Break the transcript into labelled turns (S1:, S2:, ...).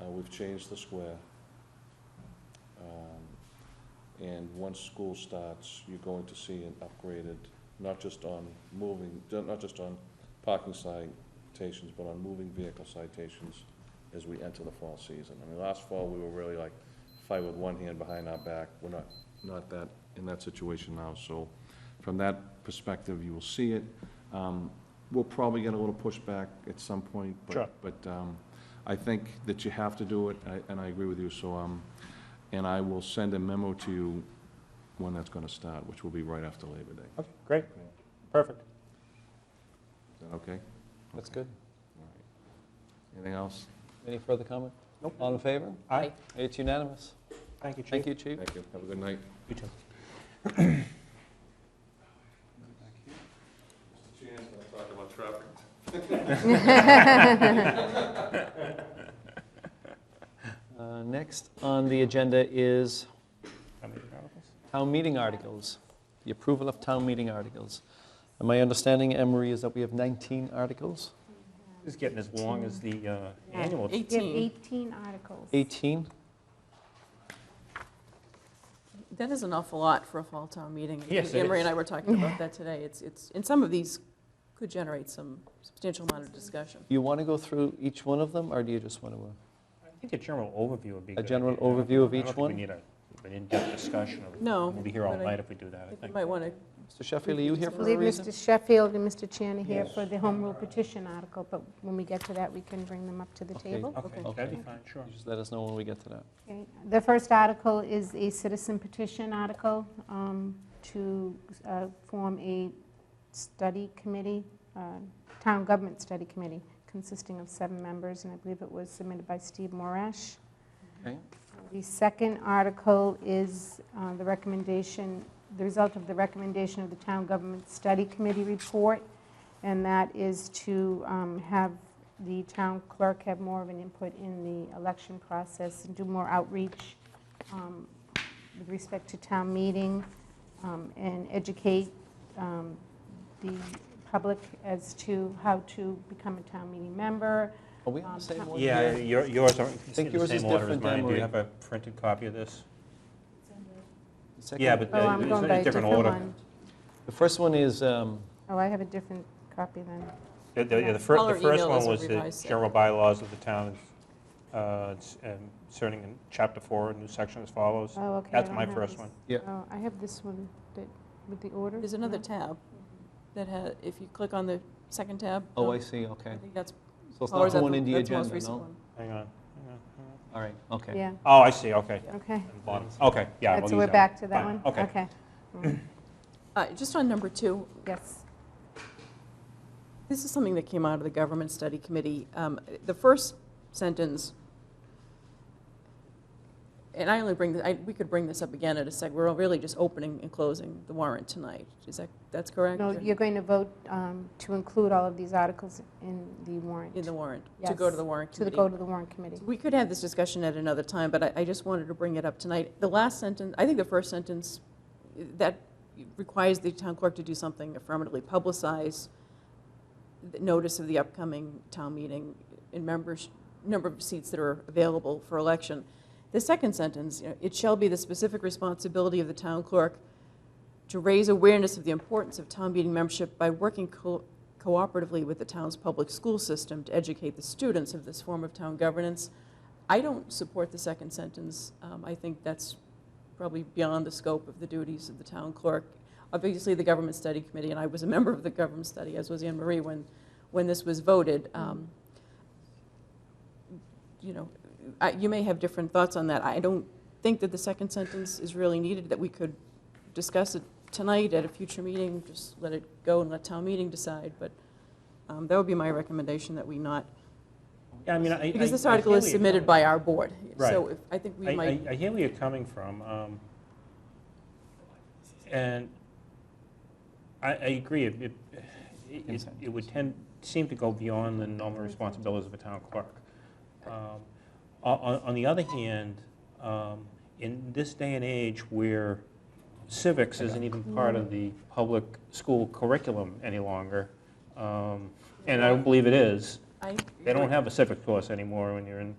S1: Uh, We've changed the square. Um, And once school starts, you're going to see an upgraded, not just on moving, not just on parking citations, but on moving vehicle citations as we enter the fall season. I mean, last fall, we were really like fight with one hand behind our back. We're not, not that, in that situation now, so from that perspective, you will see it. Um, We'll probably get a little pushback at some point, but-
S2: Sure.
S1: But um, I think that you have to do it, I- and I agree with you, so, um, and I will send a memo to you when that's gonna start, which will be right after Labor Day.
S2: Okay, great, perfect,
S1: Is that okay?
S3: That's
S1: Okay.
S3: good.
S1: All right. Anything else?
S3: Any further comment?
S2: Nope.
S3: All in favor?
S2: Aye.
S3: It's unanimous.
S2: thank you, Chief.
S3: Thank you, Chief.
S1: Thank you. Have a good night.
S2: You too.
S1: Mr. Chairman, I talk about traffic
S3: Uh, Next on the agenda is town meeting articles, the approval of town meeting articles. And my understanding, Emery, is that we have 19 articles?
S4: It's getting as long as the uh, annual.
S5: We have
S6: 18.
S5: 18 articles.
S3: 18?
S6: That is an awful lot for a fall town meeting.
S4: Yes, it
S6: Emery and
S4: is.
S6: I were talking about that today. It's, it's, and some of these could generate some substantial amount of discussion.
S3: You want to go through each one of them, or do you just want to? uh,
S4: I think a general overview would be.
S3: A
S4: good.
S3: general
S4: I don't-
S3: overview of
S4: I don't
S3: each
S4: think
S3: one?
S4: We need a, an in-depth discussion of.
S6: No,
S4: We'll be here all
S6: but I-
S4: night if we do that, I
S6: You
S4: think.
S6: might want to,
S3: Mr. Sheffield, are you here
S5: I
S3: for a
S5: believe
S3: reason?
S5: Mr. Sheffield and Mr. Chan are here
S4: Yes.
S5: for the home rule petition article, but when we get to that, we can bring them up to the
S3: Okay.
S5: table.
S4: Okay,
S3: Okay.
S4: that'd be fine, sure.
S3: You Just let us know when we get to that.
S5: Okay, The first article is a citizen petition article um, to uh, form a study committee, uh, town government study committee, consisting of seven members, and I believe it was submitted by Steve Morash.
S3: Okay.
S5: The second article is uh, the recommendation, the result of the recommendation of the town government study committee report, and that is to um, have the town clerk have more of an input in the election process and do more outreach um, with respect to town meeting um, and educate um, the public as to how to become a town meeting member.
S3: Are we on the same one?
S4: Yeah,
S3: here?
S4: your- yours are, it's
S3: think
S4: in the
S3: yours is
S4: same order as
S3: different,
S4: mine. Do
S3: Emery.
S4: you have a printed copy of this?
S3: The second-
S4: Yeah, but
S5: Oh,
S4: uh,
S5: I'm
S4: it's
S5: going by
S4: in
S5: a
S4: a different
S5: different
S4: order.
S5: one.
S3: The first one is, um,
S5: Oh, I have a different copy then.
S4: The- The yeah, the
S6: I'll
S4: fir- the first
S6: email
S4: one
S6: this
S4: was the
S6: revised set.
S4: general bylaws of the town uh, s- um, inserting in chapter four, a new section as follows.
S5: Oh, okay. I
S4: That's
S5: don't
S4: my
S5: have
S4: first one.
S5: this. Oh, I have this one that, with the order.
S6: there's another
S5: No.
S6: tab that has, if you click on the second tab.
S3: oh,
S6: um,
S3: I see, okay.
S6: I think that's,
S3: So it's
S6: or
S3: not
S6: is
S3: the
S6: that
S3: one
S6: the
S3: in the
S6: that's the most
S3: agenda,
S6: recent
S3: no?
S6: one?
S4: Hang on. hang on, hang on.
S3: All right, okay.
S5: Yeah,
S4: Oh, I see, okay.
S5: okay.
S4: On the bottom. Okay, yeah. we'll
S5: So
S4: use
S5: we're
S4: that one.
S5: back to that
S4: Fine,
S5: one?
S4: Okay.
S5: Mm,
S6: Uh, Just on number two,
S5: Yes.
S6: This is something that came out of the Government Study Committee. Um, The first sentence, and I only bring, I- we could bring this up again at a sec, we're really just opening and closing the warrant tonight. Is that, that's correct?
S5: No, you're going to vote um, to include all of these articles in the warrant,
S6: In
S5: to
S6: the warrant, to go to
S5: Yes.
S6: the warrant
S5: the
S6: committee.
S5: go to the warrant committee.
S6: We could have this discussion at another time, but I- I just wanted to bring it up tonight. The last sentence, I think the first sentence, that requires the town clerk to do something affirmatively, publicize the notice of the upcoming town meeting and members, number of seats that are available for election. The second sentence, you know, it shall be the specific responsibility of the town clerk to raise awareness of the importance of town meeting membership by working co- cooperatively with the town's public school system to educate the students of this form of town governance. I don't support the second sentence. Um, I think that's probably beyond the scope of the duties of the town clerk. Obviously, the Government Study Committee, and I was a member of the Government Study, as was Anne Marie, when, when this was voted. um, You know, I- you may have different thoughts on that. I don't think that the second sentence is really needed, that we could discuss it tonight at a future meeting, just let it go and let town meeting decide, but um, that would be my recommendation, that we not,
S4: Yeah, I mean, I.
S6: because
S4: I-
S6: this
S4: I
S6: article
S4: hear
S6: is
S4: where you're
S6: submitted
S4: coming-
S6: by our board. So
S4: Right.
S6: if, I think
S4: I-
S6: we might,
S4: I, I hear where you're coming from. um, And I, I agree, it, it- it, it would tend, seem to go beyond the normal responsibilities of a town clerk. Um, On, on- on the other hand, um, in this day and age where civics isn't even part of the public school curriculum any longer, um, and I don't believe it is,
S6: I.
S4: they don't have a civics course anymore when you're in